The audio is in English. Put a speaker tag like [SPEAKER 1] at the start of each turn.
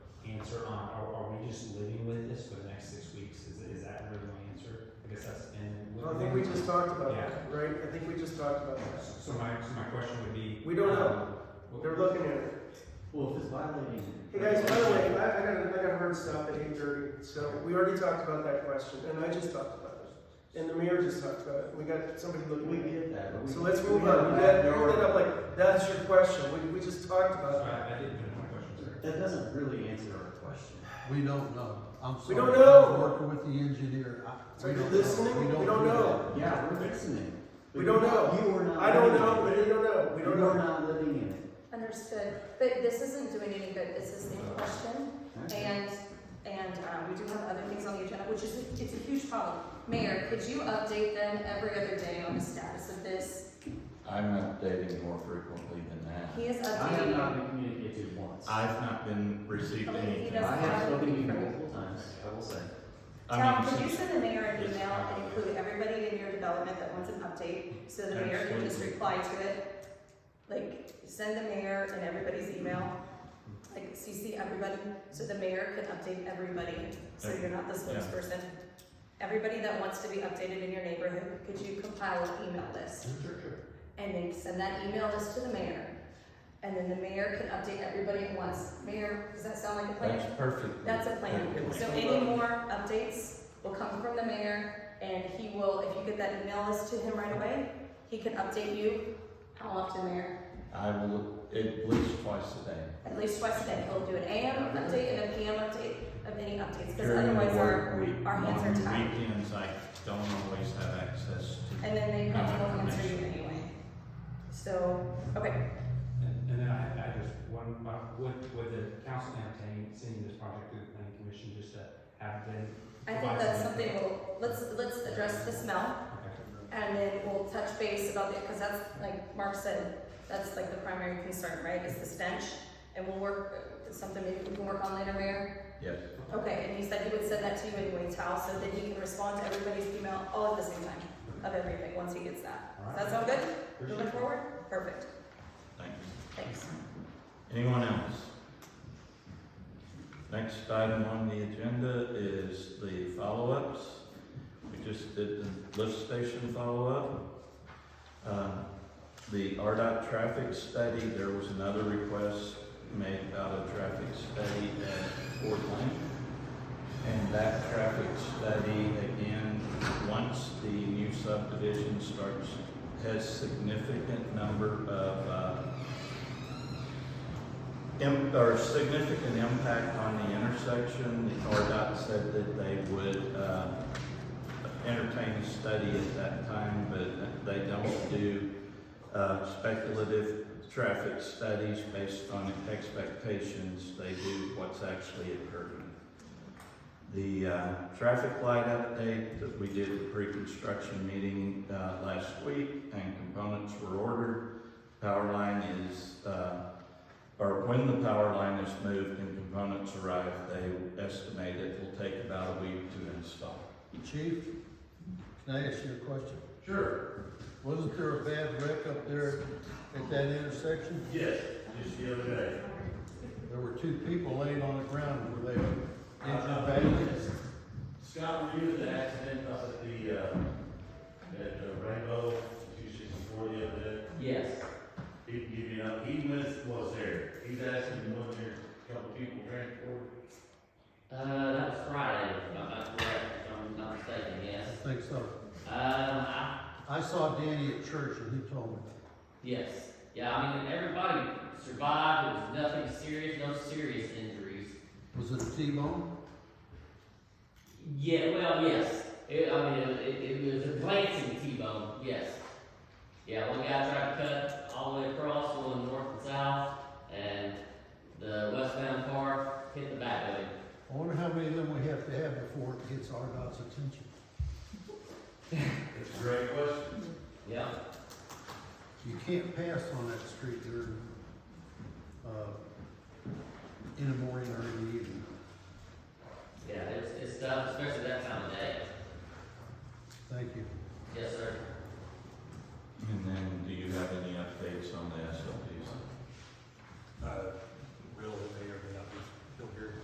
[SPEAKER 1] just living with this for the next six weeks? Is, is that really my answer? I guess that's, and.
[SPEAKER 2] I think we just talked about
[SPEAKER 1] Yeah.
[SPEAKER 2] that, right? I think we just talked about that.
[SPEAKER 1] So my, so my question would be.
[SPEAKER 2] We don't
[SPEAKER 1] um,
[SPEAKER 2] They're looking at it.
[SPEAKER 3] Well, if it's violating.
[SPEAKER 2] Hey guys, by the way, I, I got, I got heard stuff at eight thirty, so we already talked about that question, and I just talked about it. And the mayor just talked about it, we got somebody
[SPEAKER 3] We
[SPEAKER 2] looking at it.
[SPEAKER 3] get that. but we-
[SPEAKER 2] So let's
[SPEAKER 3] we
[SPEAKER 2] move
[SPEAKER 3] have
[SPEAKER 2] on, you got,
[SPEAKER 3] that
[SPEAKER 2] you
[SPEAKER 3] door.
[SPEAKER 2] ended up like, that's your question, we, we just talked
[SPEAKER 1] That's
[SPEAKER 2] about it.
[SPEAKER 1] why I didn't finish my question, sorry.
[SPEAKER 3] That doesn't really answer our question.
[SPEAKER 4] We don't know. I'm
[SPEAKER 2] We
[SPEAKER 4] sorry.
[SPEAKER 2] don't know.
[SPEAKER 4] I'm Working with the engineer. I-
[SPEAKER 2] So
[SPEAKER 4] we
[SPEAKER 2] you're
[SPEAKER 4] don't know.
[SPEAKER 2] listening?
[SPEAKER 4] We
[SPEAKER 2] We don't
[SPEAKER 4] do
[SPEAKER 2] know.
[SPEAKER 4] that.
[SPEAKER 3] Yeah, we're fixing it.
[SPEAKER 2] We don't know.
[SPEAKER 3] You are not.
[SPEAKER 2] I don't
[SPEAKER 3] living
[SPEAKER 2] know,
[SPEAKER 3] in it.
[SPEAKER 2] we don't know, we don't
[SPEAKER 3] You are
[SPEAKER 2] know.
[SPEAKER 3] not living in it.
[SPEAKER 5] Understood, but this isn't doing any good, this is a question,
[SPEAKER 3] Okay.
[SPEAKER 5] and, and, um, we do have other things on the agenda, which is, it's a huge problem. Mayor, could you update them every other day on the status of this?
[SPEAKER 6] I'm updating more frequently than that.
[SPEAKER 5] He is
[SPEAKER 3] I have not
[SPEAKER 5] updating.
[SPEAKER 3] been communicated once. I
[SPEAKER 6] I've not been received
[SPEAKER 5] Okay, he
[SPEAKER 6] anything.
[SPEAKER 5] doesn't
[SPEAKER 3] have spoken to you
[SPEAKER 5] anything.
[SPEAKER 3] multiple times, I will say.
[SPEAKER 6] I
[SPEAKER 5] Tom,
[SPEAKER 6] mean,
[SPEAKER 5] could you
[SPEAKER 6] since-
[SPEAKER 5] send the mayor an email and include everybody in your development that wants an update, so the mayor can just reply to it? Like, send the mayor and everybody's email, like CC everybody, so the mayor can update everybody, so you're not the spokesperson. Everybody that wants to be updated in your neighborhood, could you compile an email list? And then send that email list to the mayor, and then the mayor can update everybody at once. Mayor, does that sound like a plan?
[SPEAKER 6] That's perfect.
[SPEAKER 5] That's a plan. So any more updates will come from the mayor, and he will, if you get that email list to him right away, he can update you. How often, Mayor?
[SPEAKER 6] I will, at least twice a day.
[SPEAKER 5] At least twice a day. He'll do an AM update and a PM update of any updates, because
[SPEAKER 6] During the
[SPEAKER 5] otherwise
[SPEAKER 6] work
[SPEAKER 5] our,
[SPEAKER 6] week,
[SPEAKER 5] our hands are
[SPEAKER 6] on
[SPEAKER 5] tied.
[SPEAKER 6] weekends, I don't always have access to.
[SPEAKER 5] And then they probably
[SPEAKER 6] Uh,
[SPEAKER 5] will answer you anyway. So, okay,
[SPEAKER 1] And, and then I, I just, one, uh, would, would the council entertain sending this project to the planning commission just to have them?
[SPEAKER 5] I think
[SPEAKER 1] provide
[SPEAKER 5] that's
[SPEAKER 1] some
[SPEAKER 5] something
[SPEAKER 1] input?
[SPEAKER 5] we'll, let's, let's address the smell. And then we'll touch base about that, because that's, like Mark said, that's like the primary concern, right, is the stench? And we'll work, it's something maybe we can work on later, Mayor?
[SPEAKER 6] Yes.
[SPEAKER 5] Okay, and he said he would send that to you anyway, Tal, so that he can respond to everybody's email all at the same time of everything, once he gets that. Does that sound good?
[SPEAKER 1] Appreciate
[SPEAKER 5] Moving
[SPEAKER 1] it.
[SPEAKER 5] forward? Perfect,
[SPEAKER 6] Thank you.
[SPEAKER 5] thanks.
[SPEAKER 6] Anyone else? Next item on the agenda is the follow-ups. We just did the lift station follow-up. Um, The RDOT traffic study, there was another request made about a traffic study at Fort Lane. And that traffic study, again, once the new subdivision starts, has significant number of, uh, im- or significant impact on the intersection. The RDOT said that they would, uh, entertain a study at that time, but they don't do, uh, speculative traffic studies based on expectations. They do what's actually occurring. The, uh, traffic light update that we did the pre-construction meeting, uh, last week and components were ordered. Power line is, uh, or when the power line is moved and components arrive, they estimate it will take about a week to install.
[SPEAKER 4] Chief, can I ask you a question?
[SPEAKER 7] Sure,
[SPEAKER 4] Wasn't there a bad wreck up there at that intersection?
[SPEAKER 7] yes, just the other day.
[SPEAKER 4] There were two people laying on the ground, were they injured
[SPEAKER 2] Uh-huh.
[SPEAKER 4] badly?
[SPEAKER 7] Scott reviewed the accident up at the, uh, at uh, Rainbow, two sixty-four the other day.
[SPEAKER 3] Yes.
[SPEAKER 7] He can give you, an- he missed, was there, he's actually one there, a couple people transported.
[SPEAKER 8] Uh, that was Friday, if I'm not correct, if I'm not mistaken, yes.
[SPEAKER 4] I think so.
[SPEAKER 8] Um, I,
[SPEAKER 4] I saw Danny at church and he told me.
[SPEAKER 8] yes, yeah, I mean, everybody survived, there was nothing serious, no serious injuries.
[SPEAKER 4] Was it a T-bone?
[SPEAKER 8] Yeah, well, yes, it, I mean, it, it, it was a glancing T-bone, yes. Yeah, one guy tried to cut all the way across, going north and south, and the westbound car hit the back of him.
[SPEAKER 4] I wonder how many of them we have to have before it gets RDOT's attention.
[SPEAKER 7] It's a great question.
[SPEAKER 8] Yeah,
[SPEAKER 4] You can't pass on that street during, uh, in the morning or in